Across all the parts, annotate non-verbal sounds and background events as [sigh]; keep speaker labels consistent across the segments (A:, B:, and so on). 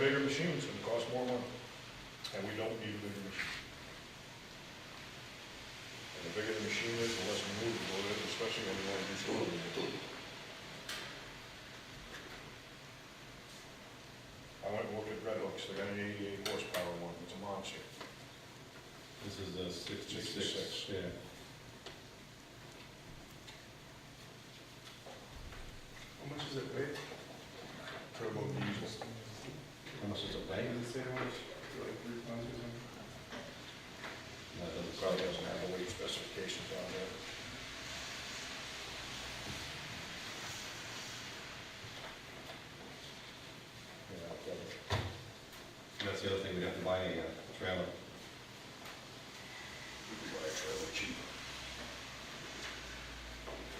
A: bigger machines and cost more money, and we don't need a bigger machine. And the bigger the machine is, the less maneuverable it is, especially when you want to do soil removal. I went and looked at Red Oaks, they got an eighty-eight horsepower one, it's a monster.
B: This is a sixty-six,
A: 66.
B: yeah.
C: How much is it weigh?
A: Turbo diesel,
B: How much is it weigh?
C: Does it say how much, like, three pounds or something?
B: No, it doesn't-
A: probably doesn't have the weight specifications on there.
B: yeah, I'll get it. That's the other thing, we'd have to buy a uh, trailer.
A: We could buy a trailer cheap.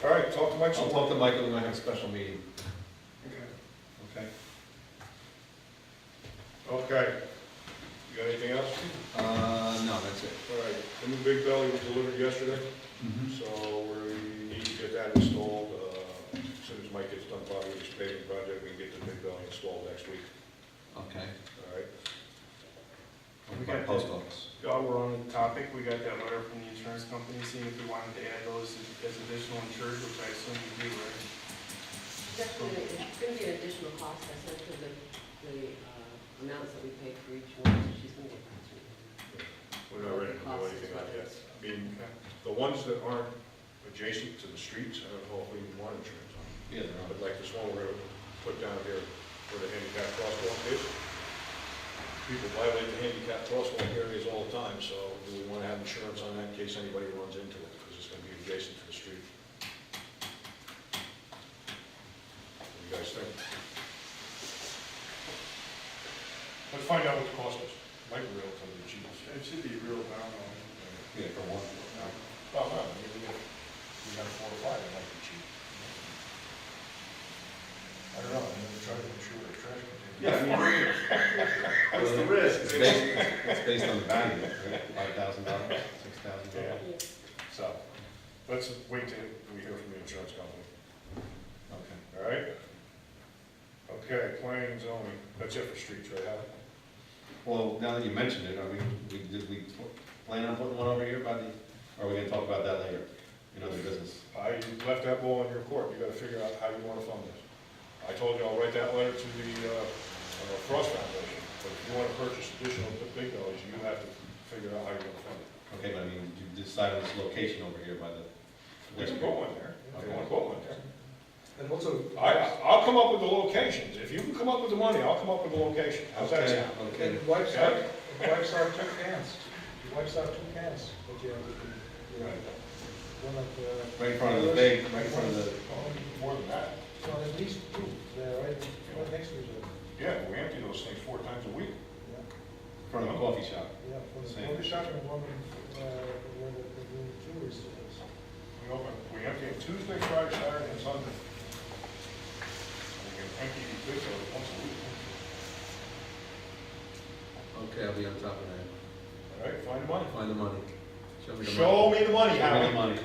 A: All right, talk to Mike some
B: I'll
A: more.
B: talk to Michael when I have a special meeting,
C: Okay.
B: okay?
A: Okay. You got anything else?
B: Uh, no, that's it.
A: All right, the new big belly was delivered yesterday,
C: Mm-hmm.
A: so we need to get that installed. uh, As soon as Mike gets done probably with his paving project, we can get the big belly installed next week,
B: Okay.
A: all right?
C: We
B: By
C: got
B: post office.
C: While we're on the topic, we got that letter from the insurance company seeing if we wanted to add those as additional insured, which I assume we do, right?
D: Definitely, it's gonna be an additional cost, I sent her the, the uh, amounts that we paid for each one, so she's gonna get back to me.
A: We're not ready to do anything on that. I mean,
C: Okay.
A: the ones that aren't adjacent to the streets, I don't know if we even want insurance on.
B: Yeah, they're
A: But like this one we're gonna put down here where the handicap crosswalk is. People violate the handicap crosswalk areas all the time, so do we wanna have insurance on that in case anybody runs into it? Because it's gonna be adjacent to the street. What do you guys think? Let's find out what the cost is. Might be real, some of the cheapest.
C: It should be real down on,
B: on. Yeah, for one.
A: Well, Oh, no, maybe we got, we got four or five, it might be cheap. I don't know, I'm gonna try to insure a trash container.
C: What's the risk?
B: It's based, it's based on the value, five thousand dollars, six thousand
A: Yeah.
B: dollars.
A: So, let's wait till we hear from the insurance company,
B: Okay.
A: all right? Okay, planning and zoning, that's it for streets, right, Howard?
B: Well, now that you mentioned it, are we, we, did we plan on putting one over here by the, or are we gonna talk about that later? In other business?
A: I left that ball in your court, you gotta figure out how you wanna fund this. I told you I'll write that letter to the, uh, uh, Frost Foundation, but if you wanna purchase additional big dollars, you have to figure out how you're gonna fund it.
B: Okay, but I mean, you decide on this location over here by the.
A: We can put one there, if you wanna put one there.
E: And also,
A: I, I'll come up with the locations, if you can come up with the money, I'll come up with the location, how's that
B: Okay,
A: sound?
B: okay.
E: and wipes out,
A: Yeah.
E: it wipes out two cans, it wipes out two cans that you have to, do.
A: Right.
E: one uh, of the,
B: Right in front of the big, right in front of the,
A: More than that,
E: so at least two, they're right, right next to each other.
A: yeah, we empty those things four times a week.
E: Yeah,
B: in front of the coffee shop.
E: yeah, one
B: Same.
E: in the coffee shop and one, in, uh, where the, the jewelry store is.
A: We open, we empty it Tuesday, Friday, Saturday, and Sunday. We can empty the big dollars once a week,
B: Okay, I'll be on top of
A: all right, find the money.
B: Find the money. Show me
A: Show me the money,
B: Show me the
A: Howard,
B: money.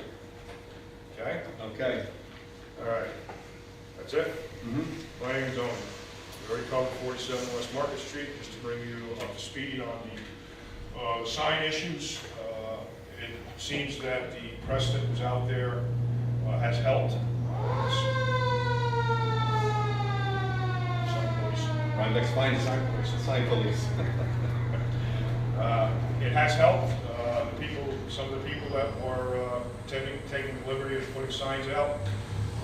A: okay?
B: Okay.
A: All right, that's it.
B: Mm-hmm.
A: Planning and zoning, we already covered 47 West Market Street, just to bring you up to speed on the uh, sign issues. Uh, It seems that the press that was out there uh, has helped. Sign police.
B: Rhinebeck's finest, sign police.
A: Uh, It has helped. Uh, The people, some of the people that were uh, taking, taking the liberty of putting signs out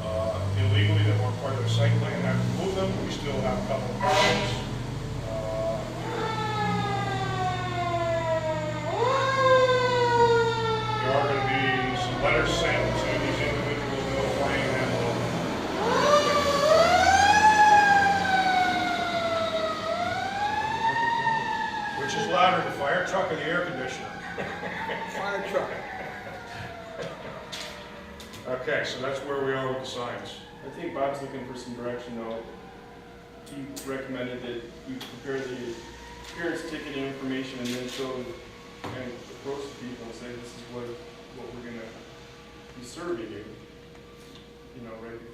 A: uh, illegally that weren't part of the site plan, have removed them. We still have a couple of problems. Uh, There are going to be some letters sent to these individuals notifying them of Which is louder, the fire truck or the air conditioner?
E: [laughs] Fire truck.
A: Okay, so that's where we are with the signs.
C: I think Bob's looking for some direction though. He recommended that you prepare the parents ticketing information and then show them and approach the people and say, this is what, what we're gonna be serving you. You know, right before